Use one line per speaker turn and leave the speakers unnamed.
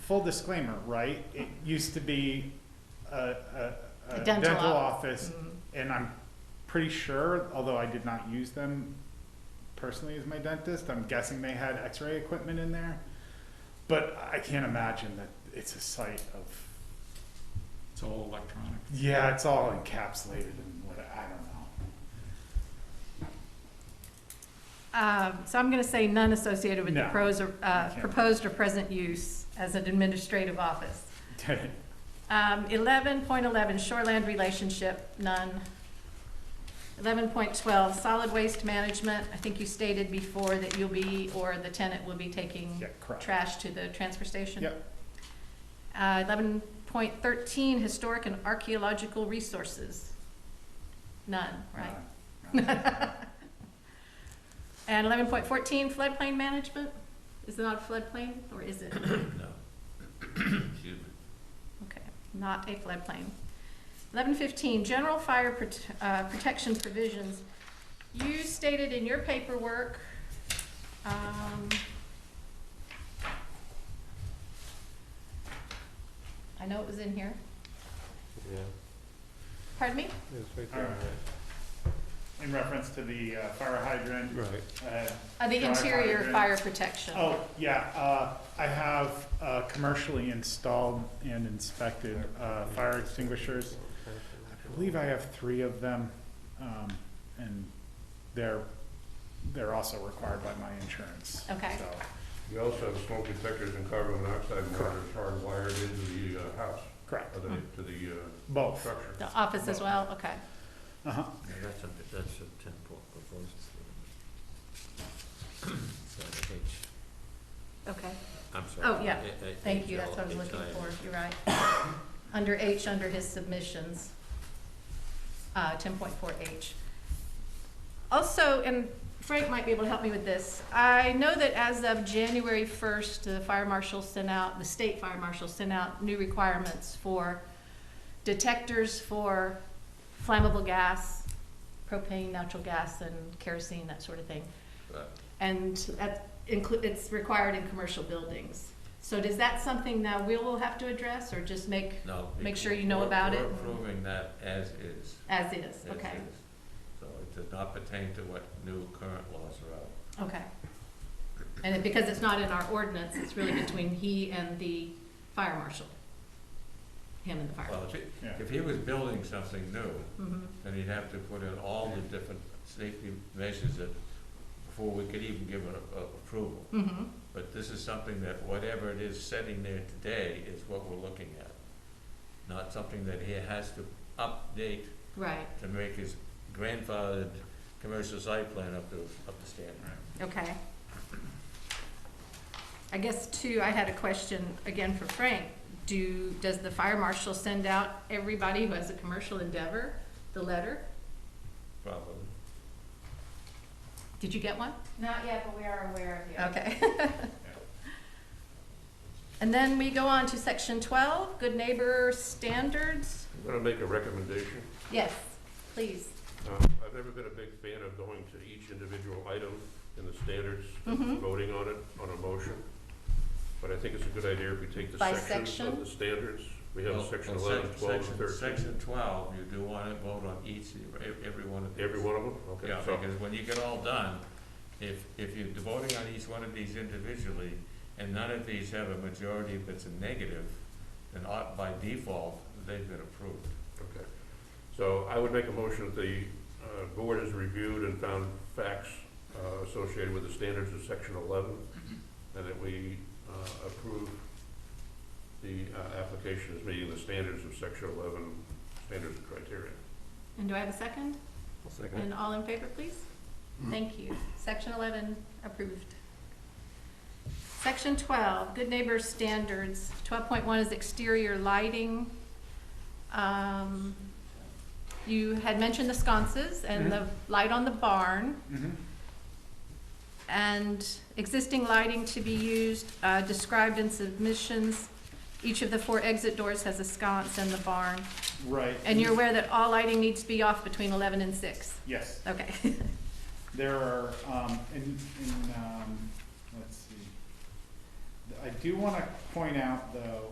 full disclaimer, right? It used to be a, a,
A
a
dental
dental
op-
office, and I'm pretty sure, although I did not use them personally as my dentist, I'm guessing they had x-ray equipment in there. But I can't imagine that it's a site of,
It's all electronic.
yeah, it's all encapsulated and what, I don't know.
Um, So I'm going to say none associated with the
No.
pros or, uh,
Okay.
proposed or present use as an administrative office. Um, eleven point eleven, shoreland relationship, none. Eleven point twelve, solid waste management, I think you stated before that you'll be, or the tenant will be taking
Yeah, correct.
trash to the transfer station.
Yep.
Uh, eleven point thirteen, historic and archaeological resources, none, right?
Uh,
And eleven point fourteen, floodplain management, is it not floodplain, or is it?
No. Excuse me.
Okay, not a floodplain. Eleven fifteen, general fire prot- uh, protection provisions. You stated in your paperwork, um, I know it was in here,
Yeah,
pardon me?
it's right
there. In reference to the uh, fire hydrant,
Right.
uh,
Uh, the
Fire
interior
hydrant.
fire protection.
Oh, yeah, uh, I have, uh, commercially installed and inspected, uh, fire extinguishers. I believe I have three of them, um, and they're, they're also required by my insurance.
Okay.
So,
You also have smoke detectors and carbon monoxide monitors hardwired into the uh, house,
Correct,
or
Mm-hmm.
the- to the uh,
both,
structure.
The office as well, okay.
uh-huh,
That's a, that's a temple proposed. Sorry, H,
Okay.
I'm sorry.
Oh, yeah.
A- a-
Thank you, that's what I was
HL,
looking
HIL.
for, you're right. Under H, under his submissions, uh, ten point four H. Also, and Frank might be able to help me with this, I know that as of January first, the fire marshal sent out, the state fire marshal sent out new requirements for detectors for flammable gas, propane, natural gas, and kerosene, that sort of thing.
Right.
And that inclu- it's required in commercial buildings. So is that something that we will have to address or just make
No.
Make
it-
sure you know
we're-
about
We're
it.
approving that as is.
as is?
as
Okay,
is. So it does not pertain to what new current laws are out.
okay. And it- because it's not in our ordinance, it's really between he and the fire marshal. Him and the fire.
Well, if he,
yeah.
if he was building something new,
Mm-hmm,
then he'd have to put in all the different safety measures that, before we could even give an a- approval.
mm-hmm,
But this is something that whatever it is sitting there today is what we're looking at. Not something that he has to update
right,
to make his grandfathered commercial site plan up to, up to standard.
okay. I guess too, I had a question again for Frank. Do, does the fire marshal send out everybody who has a commercial endeavor the letter?
Probably.
Did you get one?
Not yet, but we are aware of you.
Okay. And then we go on to section twelve, good neighbor standards.
I'm gonna make a recommendation.
Yes, please.
Um, I've never been a big fan of going to each individual item in the standards,
Mhm.
voting on it, on a motion. But I think it's a good idea if we take the
By
sections of
section?
the standards. We have
Well,
section
well,
eleven,
sec-
twelve,
section-
and thirteen.
Section twelve, you do want to vote on each, ev- every one of these.
Every one of them? Okay,
Yeah,
so-
because when you get all done, if, if you're voting on each one of these individually, and none of these have a majority that's a negative, then au- by default, they've been approved.
Okay. So I would make a motion that the uh, board has reviewed and found facts uh, associated with the standards of section eleven, and that we uh, approve the uh, application as meeting the standards of section eleven, standards and criteria.
And do I have a second?
Second.
And all in favor, please? Thank you. Section eleven approved. Section twelve, good neighbor standards. Twelve point one is exterior lighting. Um, you had mentioned the sconces and the light on the barn.
Mhm.
and existing lighting to be used, uh, described in submissions. Each of the four exit doors has a sconce in the barn.
Right.
And you're aware that all lighting needs to be off between eleven and six?
Yes.
Okay.
There are, um, in, in, um, let's see. I do wanna point out though,